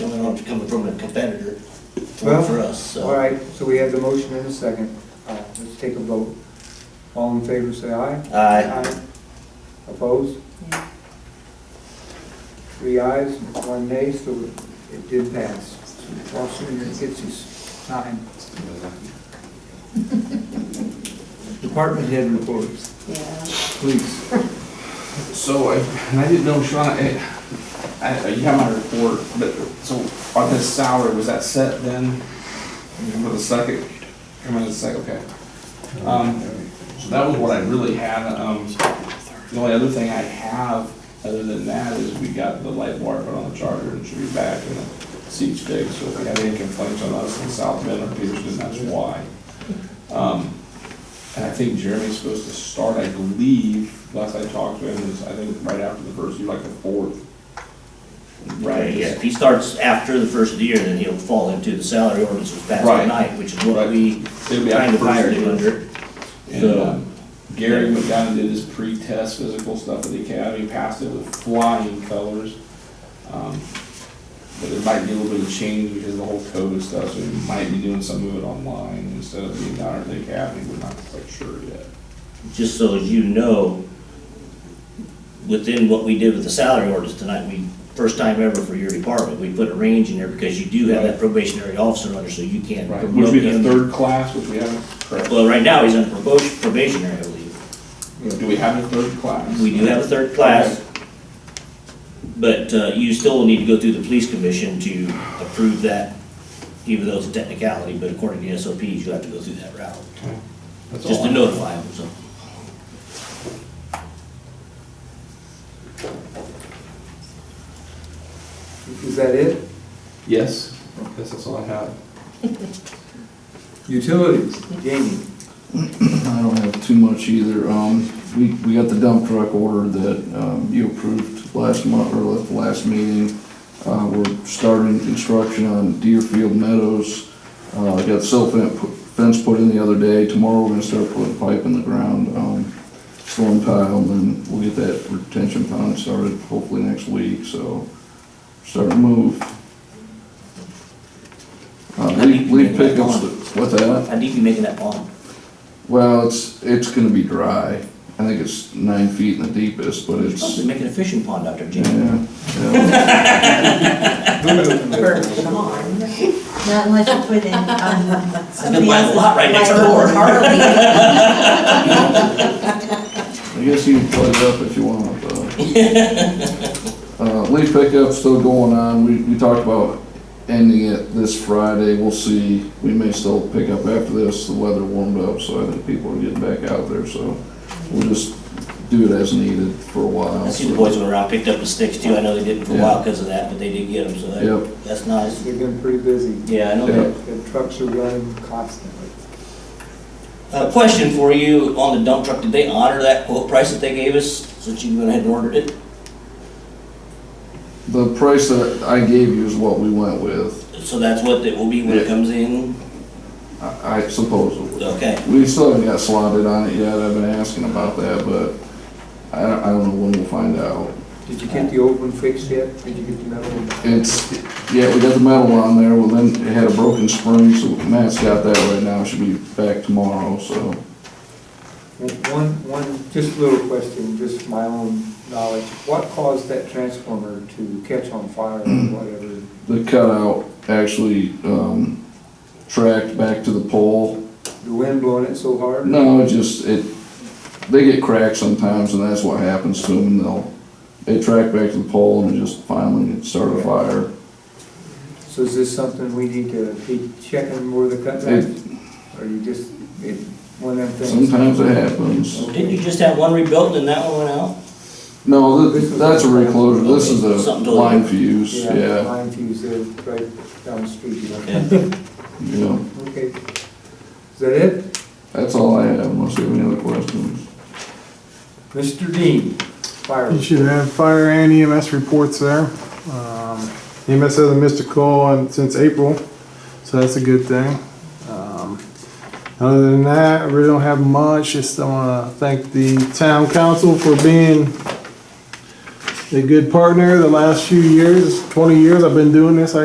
one's coming from a competitor for Well, for us, so. All right, so we have the motion and a second. Uh, Let's take a vote. All in favor, say aye. Aye. Opposed? Yeah. Three ayes, one nay, so it did pass. Lawson gets his time. Department head reports, Yeah, please. So, I- and I didn't know, Sean, I, I, you have my report, but, so, on this salary, was that set then? For the second, come in the second, okay. Um, so that was what I really had, um, the only other thing I have, other than that, is we got the light bar put on the charger and should be back in the seats fixed, so if you have any complaints on us in South Bend or Peterson, that's why. Um, and I think Jeremy's supposed to start, I believe, last I talked to him, is I think right after the first, year, like the fourth. Right, yeah, if he starts after the first of the year, then he'll fall into the salary ordinance was passed Right. tonight, which is what Right. we It'll be kind after of the first hired him year. under. And So- um, Gary went down and did his pre-test physical stuff at the academy, passed it with flying colors. Um, But it might be a little bit of change because of the whole COVID stuff, so we might be doing some of it online instead of being down at the academy, we're not quite sure yet. just so as you know, within what we did with the salary orders tonight, we, first time ever for your department, we put a range in there because you do have that Right. probationary officer under, so you can't Right, promote which would be the him. third class, which we haven't, correct. Well, right now, he's under probation- probationary, I believe. do we have a third class? We do have a third class, but uh, you still need to go through the police commission to approve that, even though it's a technicality, but according to the SOPs, you have to go through that route, That's just all to I- notify them, so. Is that it? Yes, yes, that's all I have. Utilities, Jamie. I don't have too much either. Um, we, we got the dump truck order that, um, you approved last month, or at the last meeting. Uh, we're starting construction on Deerfield Meadows. Uh, got silt fen- fence put in the other day. Tomorrow we're gonna start putting pipe in the ground, um, storm tile, and then we'll get that retention pond started hopefully next week, so starting to move. Uh, leaf, leaf pickups, what's that? How deep you making that pond? Well, it's, it's gonna be dry. I think it's nine feet in the deepest, but You're supposed to it's, be making a fishing pond out there, Jim. yeah, yeah. come on. Not unless you put in, um, somebody buy a else's. lot right next like, door. little Harley. I guess you can plug it up if you want, but. Uh, leaf pickup's still going on. We, we talked about ending it this Friday. We'll see. We may still pick up after this. The weather warmed up, so I think people are getting back out there, so we'll just do it as needed for a while. I see the so- boys went around, picked up the sticks too, I know they didn't for a while because of that, but they did get them, so Yep. that, that's nice. They've been pretty busy. Yeah, I know Yep. that. The trucks are running constantly. A question for you on the dump truck, did they honor that quote price that they gave us, since you went ahead and ordered it? The price that I gave you is what we went with, So that's what it will be when it Yeah. comes in? I I supposedly. Okay, We still haven't got slotted on it yet, I've been asking about that, but I don't, I don't know when we'll find out. Did you get the old one fixed yet? Did you get the metal one? It's, yeah, we got the metal on there, well then it had a broken spring, so Matt's got that right now, should be back tomorrow, so. One, one, just a little question, just my own knowledge. What caused that transformer to catch on fire or Mm. whatever? The cutout actually, um, tracked back to the pole. The wind blowing it so hard? No, it just, it, they get cracked sometimes and that's what happens to them, they'll, they track back to the pole and it just finally started a fire. So is this something we need to be checking where the cutback? It- Or you just, it, one of them things? Sometimes it happens. didn't you just have one rebuilt and that one went out? No, th- that's a reclosure, this is a Something totally- line fuse, yeah, Line fuse there, right down the street. you know? Yeah. yeah. Okay. Is that it? That's all I have, unless you have any other questions. Mr. Dean, fire. You should have fire and EMS reports there. Um, EMS hasn't missed a call on- since April, so that's a good thing. Um, Other than that, I really don't have much, just I wanna thank the town council for being a good partner the last few years, twenty years I've been doing this, I